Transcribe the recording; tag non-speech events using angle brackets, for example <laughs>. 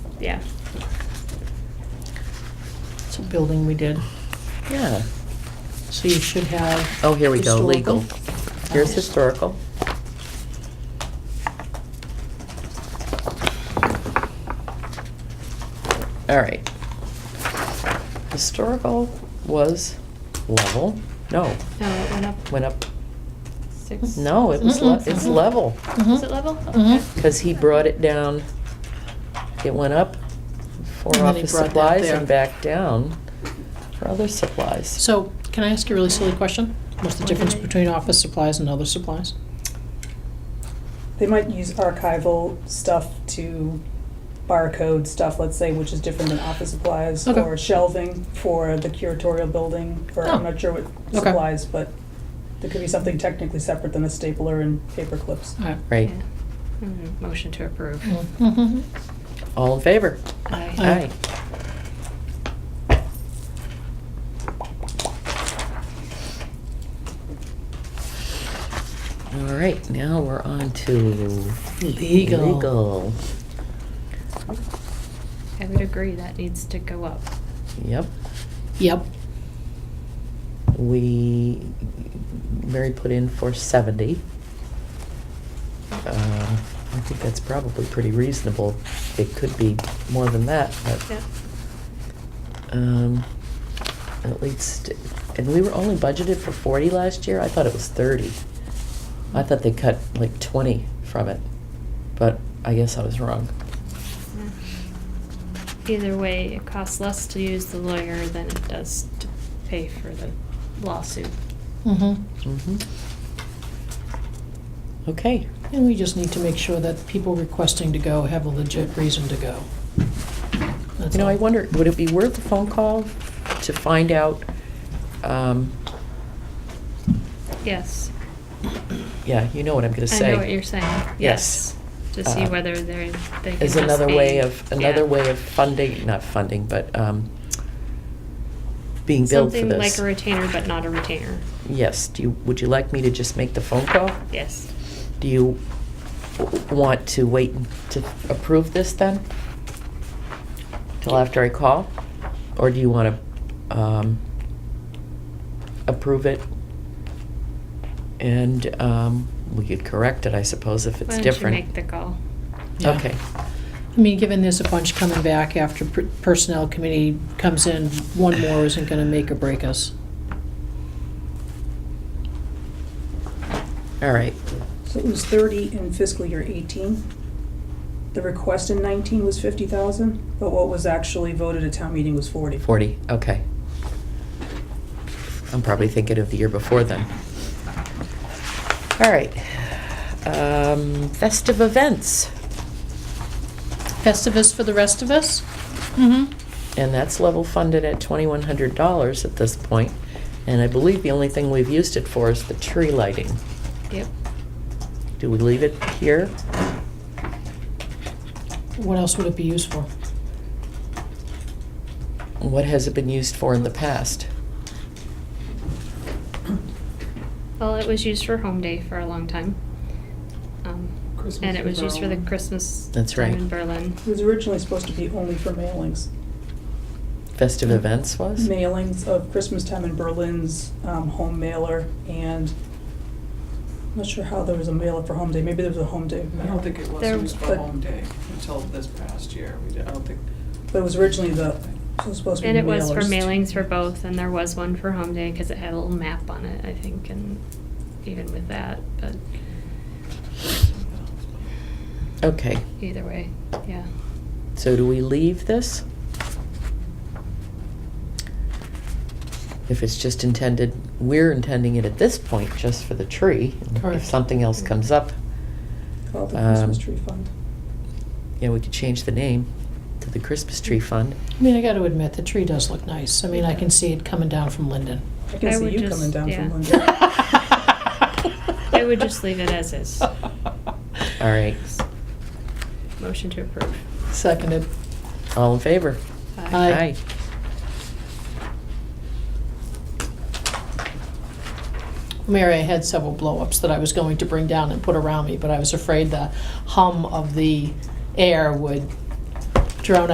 yeah. So building we did. Yeah. So you should have. Oh, here we go, legal. historical. Here's historical. All right. Historical was level, no, No, it went up went up, six. no, it was, le- Mm-mm. it's level, Is Mhm. it level? Mhm. Okay. because he brought it down. It went up for And then he office brought that supplies there. and back down for other supplies. So, can I ask you a really silly question? What's the What difference did I- between office supplies and other supplies? They might use archival stuff to barcode stuff, let's say, which is different than office supplies. Okay. Or shelving for the curatorial building, or I'm Oh. not sure what Okay. supplies, but there could be something technically separate than a stapler and paper clips. All right. Right, Yeah. Mm, Motion to approve. Mhm. Mm-hmm. all in favor? Aye. Aye. Aye. All right, now we're on to Legal. Legal. I would agree, that needs to go up. Yep, Yep. we, Mary put in for seventy. Um, I think that's probably pretty reasonable. It could be more than that, but, Yeah. um, at least, and we were only budgeted for forty last year. I thought it was thirty. I thought they cut like twenty from it, but I guess I was wrong. Either way, it costs less to use the lawyer than it does to pay for the lawsuit. Mhm. Mhm. Okay, And we just need to make sure that people requesting to go have a legit reason to go. That's you know, I all. wonder, would it be worth a phone call to find out, um, Yes. yeah, you know what I'm gonna I say. know what you're saying. Yes. To see Uh, whether they're, they can just Is another way be- of, another yeah. way of funding, not funding, but, um, being billed for Something this. like a retainer, but not a retainer. Yes, do you, would you like me to just make the phone call? Yes. Do you w- want to wait to approve this then? Till after I call? Or do you want to um, approve it? And um, we could correct it, I suppose, if it's Why don't you make different. the call? Yeah. Okay, I mean, given there's a bunch coming back after per- Personnel Committee comes in, one more isn't gonna make or break us. all right. So it was thirty in fiscal year eighteen. The request in nineteen was fifty thousand, but what was actually voted at town meeting was forty. 40, okay. I'm probably thinking of the year before then. All right. Um, Festive events, Festivus for the rest of us? Mm-hmm. and that's level funded at $2,100 at this point. And I believe the only thing we've used it for is the tree lighting. Yep. Do we leave it here? What else would it be used for? What has it been used for in the past? Well, it was used for home day for a long time. Um, Christmas And it in was used for the Berlin. Christmas That's time right. in Berlin. It was originally supposed to be only for mailings. Festive events was? mailings of Christmas time in Berlin's um, home mailer, and I'm not sure how there was a mailer for home day. Maybe there was a home day. I mailer. don't think it was There- used for but- home day until this past year. We did, I don't think, But it was originally the it was supposed to be And it was for mailers. mailings for both, and there was one for home day, because it had a little map on it, I think, and even with that, but Okay, either way, yeah. so do we leave this? If it's just intended, we're intending it at this point just for the tree. If Correct. something else comes up, Called the Um, Christmas tree fund. yeah, we could change the name to the Christmas Tree Fund. I mean, I gotta admit, the tree does look nice. I mean, I can see it coming down from Linden. I can I see would you just- coming down yeah. from London. <laughs> I would just leave it as is. All right, Motion to approve. Seconded. all in favor? Aye. Mary, I had several blow-ups that I was going to bring down and put around me, but I was afraid the hum of the air would drown